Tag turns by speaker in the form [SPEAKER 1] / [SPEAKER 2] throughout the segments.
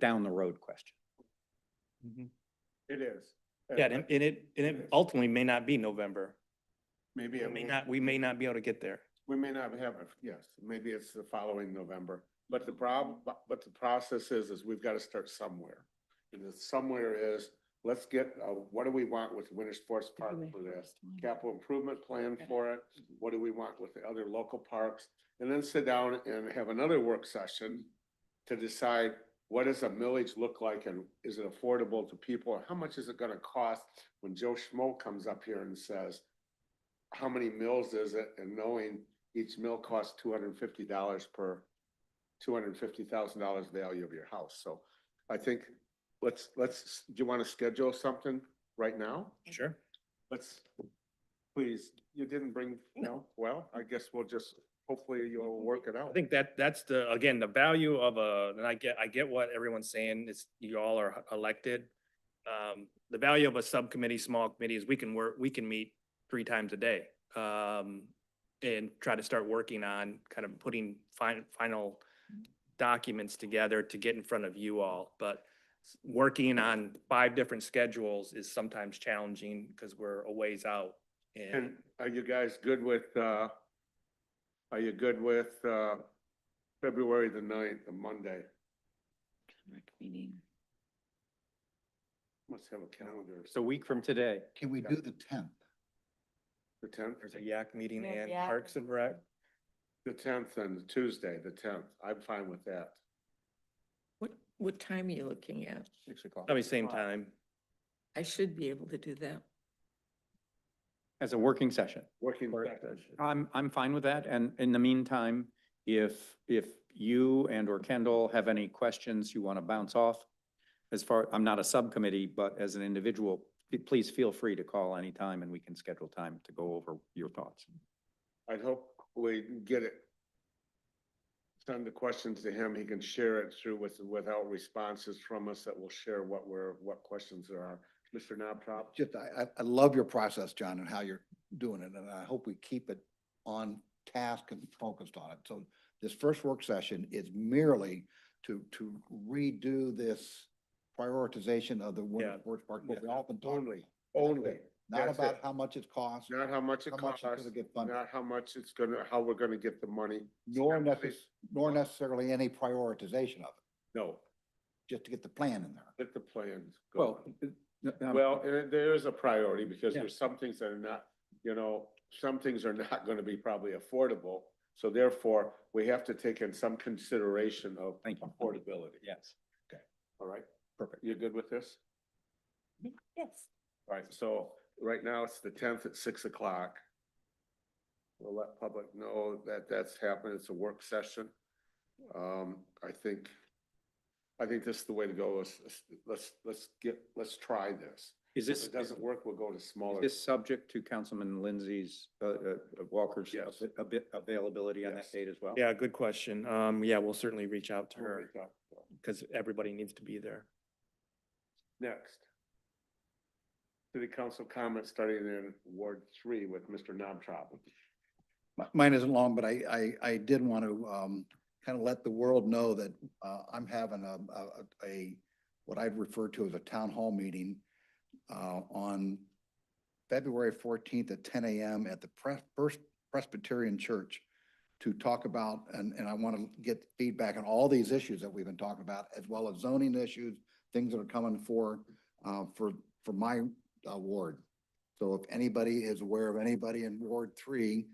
[SPEAKER 1] down the road question. Mm-hmm.
[SPEAKER 2] It is.
[SPEAKER 3] Yeah, and, and it, and
[SPEAKER 2] Yes.
[SPEAKER 3] it ultimately may not be November.
[SPEAKER 2] Maybe,
[SPEAKER 3] We
[SPEAKER 2] it
[SPEAKER 3] may
[SPEAKER 2] won't-
[SPEAKER 3] not, we may not be able to get there.
[SPEAKER 2] we may not have it, yes, maybe it's the following November. But the problem, but, but the process is, is we've got to start somewhere. And the somewhere is, let's get, uh, what do we want with winter sports park for this? Capital improvement plan for it, what do we want with the other local parks? And then sit down and have another work session to decide what does a millage look like and is it affordable to people? How much is it gonna cost when Joe Schmo comes up here and says, how many mills is it? And knowing each mill costs two hundred and fifty dollars per, two hundred and fifty thousand dollars value of your house. So I think, let's, let's, do you wanna schedule something right now?
[SPEAKER 3] Sure.
[SPEAKER 2] Let's, please, you didn't bring, no, well, I guess we'll just, hopefully you'll work it out.
[SPEAKER 3] I think that, that's the, again, the value of a, and I get, I get what everyone's saying, is you all are elected. Um, the value of a subcommittee, small committee is we can work, we can meet three times a day. Um, and try to start working on kind of putting fin- final documents together to get in front of you all. But s- working on five different schedules is sometimes challenging because we're a ways out.
[SPEAKER 2] And
[SPEAKER 3] And
[SPEAKER 2] are you guys good with, uh, are you good with, uh, February the ninth, the Monday?
[SPEAKER 4] Meeting.
[SPEAKER 2] Let's have a calendar.
[SPEAKER 1] It's a week from today.
[SPEAKER 5] Can we do the tenth?
[SPEAKER 2] The tenth,
[SPEAKER 3] there's a yak meeting
[SPEAKER 4] There's
[SPEAKER 3] and
[SPEAKER 4] yak.
[SPEAKER 3] Parks and Rec.
[SPEAKER 2] the tenth and Tuesday, the tenth. I'm fine with that.
[SPEAKER 4] What, what time are you looking at?
[SPEAKER 1] Six o'clock.
[SPEAKER 3] Probably same time.
[SPEAKER 4] I should be able to do that.
[SPEAKER 1] As a working session.
[SPEAKER 2] Working
[SPEAKER 1] Work
[SPEAKER 2] session.
[SPEAKER 1] I'm, I'm fine with that. And in the meantime, if, if you and or Kendall have any questions you want to bounce off, as far, I'm not a subcommittee, but as an individual, p- please feel free to call anytime and we can schedule time to go over your thoughts.
[SPEAKER 2] I'd hope we get it. Send the questions to him. He can share it through with, without responses from us that will share what we're, what questions there are. Mr. Knobtop?
[SPEAKER 5] Just, I, I, I love your process, John, and how you're doing it, and I hope we keep it on task and focused on it. So this first work session is merely to, to redo this prioritization of the winter
[SPEAKER 3] Yeah.
[SPEAKER 5] sports park, what we
[SPEAKER 2] Yeah.
[SPEAKER 5] all been talking about.
[SPEAKER 2] Only, only,
[SPEAKER 5] Not
[SPEAKER 2] That's
[SPEAKER 5] about
[SPEAKER 2] it.
[SPEAKER 5] how much it costs,
[SPEAKER 2] not how much it
[SPEAKER 5] how much
[SPEAKER 2] costs,
[SPEAKER 5] it's gonna get funded,
[SPEAKER 2] not how much it's gonna, how we're gonna get the money.
[SPEAKER 5] nor
[SPEAKER 2] Not
[SPEAKER 5] necess, nor necessarily any prioritization of it,
[SPEAKER 2] No,
[SPEAKER 5] just to get the plan in there.
[SPEAKER 2] let the plans go.
[SPEAKER 1] Well,
[SPEAKER 2] on.
[SPEAKER 3] um,
[SPEAKER 1] uh,
[SPEAKER 2] Well, and it- there is a priority because
[SPEAKER 1] Yeah.
[SPEAKER 2] there's some things that are not, you know, some things are not gonna be probably affordable. So therefore, we have to take in some consideration of
[SPEAKER 1] Thank you.
[SPEAKER 2] affordability.
[SPEAKER 1] Yes.
[SPEAKER 2] All right,
[SPEAKER 5] Perfect.
[SPEAKER 2] you good with this?
[SPEAKER 4] Yes.
[SPEAKER 2] All right, so right now it's the tenth at six o'clock. We'll let public know that that's happened. It's a work session. Um, I think, I think this is the way to go. Let's, let's, let's get, let's try this.
[SPEAKER 1] Is
[SPEAKER 2] If
[SPEAKER 1] this,
[SPEAKER 2] it doesn't work, we'll go to smaller.
[SPEAKER 1] is subject to Councilman Lindsay's, uh, uh, Walker's
[SPEAKER 2] Yes.
[SPEAKER 1] a bit availability on that
[SPEAKER 2] Yes.
[SPEAKER 1] date as well?
[SPEAKER 3] Yeah, good question. Um, yeah, we'll certainly reach out to
[SPEAKER 2] We'll
[SPEAKER 3] her
[SPEAKER 2] reach out.
[SPEAKER 3] because everybody needs to be there.
[SPEAKER 2] Next. City council comments starting in Ward Three with Mr. Nomtrop.
[SPEAKER 5] Mi- Mine isn't long, but I, I, I did want to, um, kind of let the world know that, uh, I'm having a, a, a, what I'd refer to as a town hall meeting, uh, on February fourteenth at ten AM at the Pres- First Presbyterian Church to talk about, and, and I want to get feedback on all these issues that we've been talking about, as well as zoning issues, things that are coming for, uh, for, for my uh, ward. So if anybody is aware of anybody in Ward Three,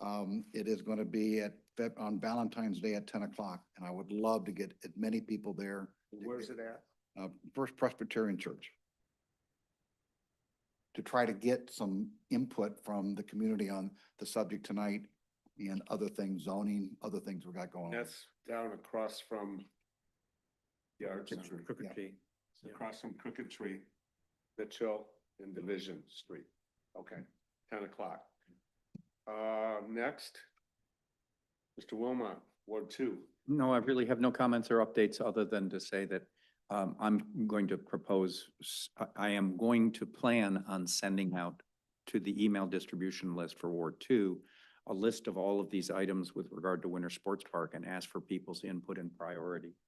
[SPEAKER 5] um, it is going to be at, Feb- on Valentine's Day at ten o'clock, and I would love to get as many people there.
[SPEAKER 2] Where's it at?
[SPEAKER 5] Uh, First Presbyterian Church. To try to get some input from the community on the subject tonight and other things, zoning, other things we got going on.
[SPEAKER 2] That's down across from Yard Center.
[SPEAKER 3] Crooked
[SPEAKER 5] Yeah.
[SPEAKER 3] Tree.
[SPEAKER 2] It's Across from Crooked Tree, Mitchell and Division Street. Okay, ten o'clock. Uh, next. Mr. Wilmot, Ward Two.
[SPEAKER 1] No, I really have no comments or updates other than to say that um, I'm going to propose, s- I- I am going to plan on sending out to the email distribution list for Ward Two, a list of all of these items with regard to winter sports park and ask for people's input and priority.